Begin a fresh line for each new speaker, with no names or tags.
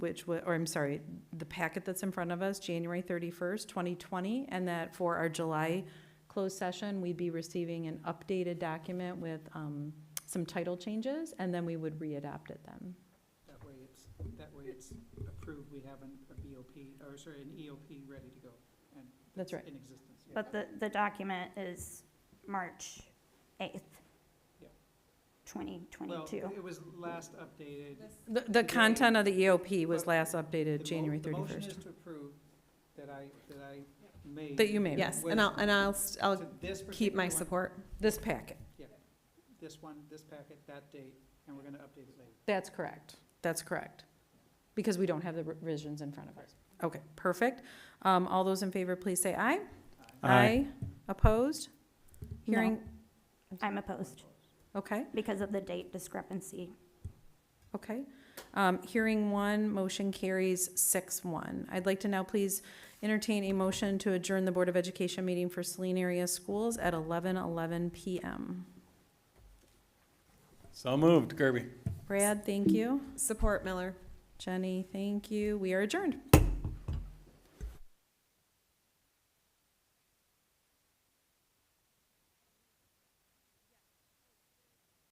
which, wa- or I'm sorry, the packet that's in front of us, January 31st, 2020, and that for our July closed session, we'd be receiving an updated document with um, some title changes, and then we would readopt it then.
That way it's, that way it's approved, we have an, a BOP, or sorry, an EOP ready to go.
That's right.
In existence, yeah.
But the, the document is March 8th,
Yeah. Well,
2022.
it was last updated.
The, the content of the EOP was last updated
The mo-
January
The motion
31st.
is to approve that I, that I made.
That you made.
Yes, and I'll, and I'll, st- I'll
to this
keep
particular
my
one,
support.
This packet.
This one, this packet, that date, and we're gonna update it later.
That's correct. That's correct. Because we don't have the revisions in front of us. Okay, perfect. Um, all those in favor, please say aye.
Aye.
Opposed? Hearing,
I'm opposed
okay,
because of the date discrepancy.
okay. Um, hearing one, motion carries six one. I'd like to now please entertain a motion to adjourn the Board of Education meeting for Saline Area Schools at eleven eleven PM.
So moved, Kirby.
Brad, thank you.
Support Miller.
Jenny, thank you. We are adjourned.